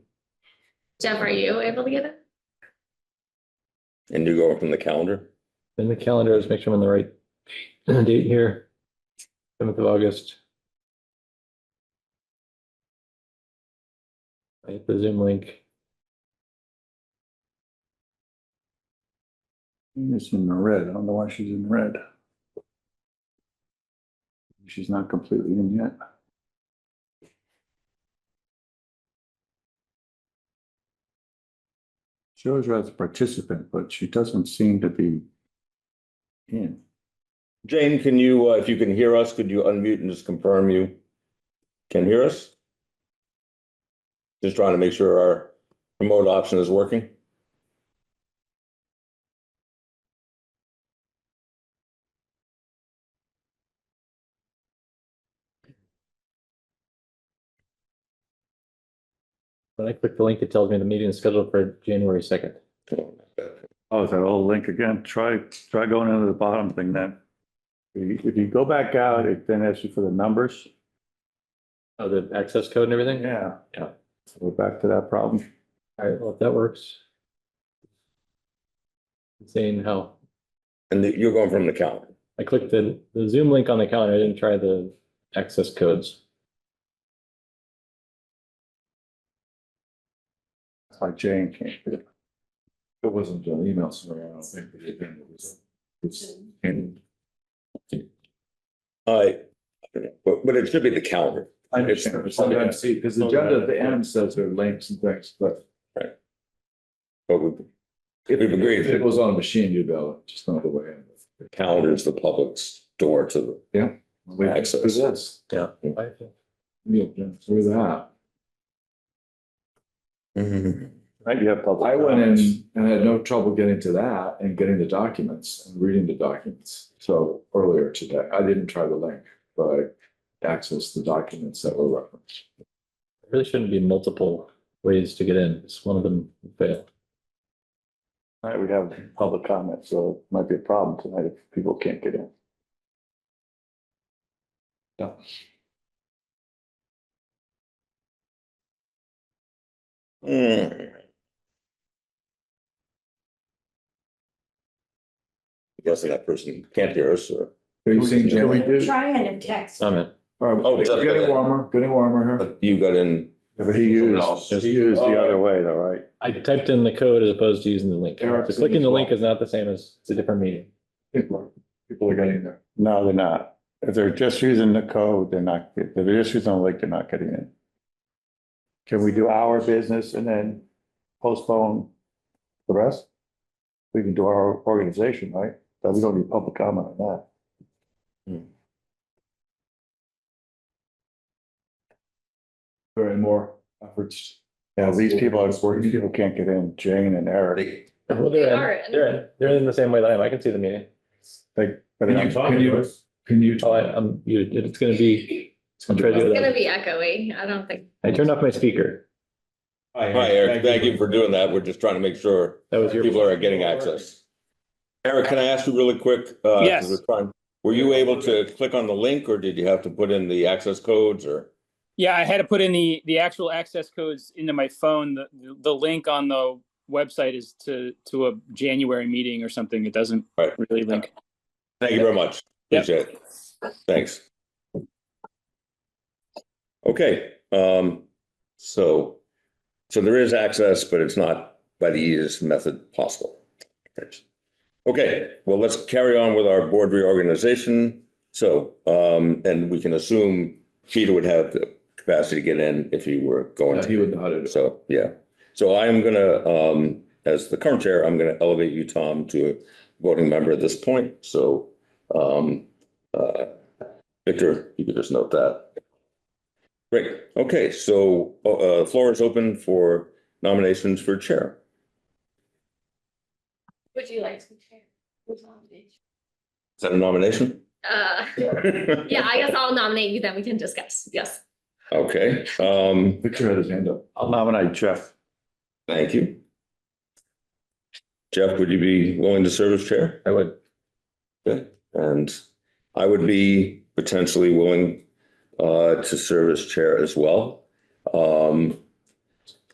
Jeff, are you able to get it? And you go from the calendar? In the calendar, let's make sure I'm on the right date here. Seventh of August. I hit the Zoom link. It's in the red. I don't know why she's in red. She's not completely in yet. Shows her as a participant, but she doesn't seem to be in. Jane, can you, uh, if you can hear us, could you unmute and just confirm you can hear us? Just trying to make sure our remote option is working. When I click the link, it tells me the meeting is scheduled for January second. Oh, is that old link again? Try, try going into the bottom thing then. If you- if you go back out, it then asks you for the numbers. Oh, the access code and everything? Yeah. Yeah. So We're back to that problem. All right, well, if that works. Saying how, And that you're going from the calendar. I clicked the, the Zoom link on the calendar, I didn't try the access codes. That's why Jane can't do it. It wasn't an email survey, I don't think. the agenda was- It's in, I, but, but it should be the calendar. I understand, sometimes see, because the agenda at the end says there are links and things, but But we- if We've agreed. if it was on a machine, you'd be able, to just know the way. in. the calendar is the public's door to the. We can do Access. this. I Yeah, through that. Right, you have public. I went comments. in and had no trouble getting to that and getting the documents and reading the documents. So earlier today, I didn't try the link, but I accessed the documents that were referenced. Really shouldn't be multiple ways to get in, it's one of them failed. All right, we have public comment, so it might be a problem tonight if people can't get in. No. Hmm. Guessing that person can't hear us or. Are you seeing Can we Jim? do, Try and a text. Summit. Oh, It's just- getting warmer, getting warmer here. But you got in. but he used, he used the other way though, right? I typed in the code as opposed to using the link. Eric, So Clicking the as well. link is not the same as, it's a different meeting. People are- people are getting there. No, they're not. If they're just using the code, they're not, if they're just using the link, they're not getting in. Can we do our business and then postpone the rest? We can do our organization, right? But we don't need public comment on that. Hmm. There are more efforts. Yeah, these people, these people can't get in, Jane and Eric. They- Well, they're They in, are in. they're in, they're in the same way that I am. I can see the meeting. They- Can you, can you, can you? Oh, I, I'm, you, it's gonna be, I'll try to do It's gonna that. be echoey. I don't think. I turned off my speaker. All right, Eric, thank you for doing that. We're just trying to make sure That was your. people are getting access. Eric, can I ask you really quick? uh, 'cause Yes. we're trying- Were you able to click on the link or did you have to put in the access codes or? Yeah, I had to put in the, the actual access codes into my phone. The, the link on the website is to, to a January meeting or something. It doesn't Right. really link. Thank you very much. Yep. Appreciate it. Thanks. Okay, um, so, so there is access, but it's not by the easiest method possible. Okay, well, let's carry on with our board reorganization. So, um, and we can assume Peter would have the capacity to get in if he were going Yeah, He to. would know how to do it. So, yeah. So I am gonna, um, as the current chair, I'm gonna elevate you, Tom, to a voting member at this point. So, um, uh, Victor, you could just note that. Great. Okay, so, uh, floor is open for nominations for chair. Would you like to share? Who's on it? Is that a nomination? Uh, yeah, I guess I'll nominate you, then we can discuss. Yes. Okay, um, Victor had his hand up. I'll nominate Jeff. thank you. Jeff, would you be willing to serve as chair? I would. Good. And I would be potentially willing uh, to serve as chair as well. Um,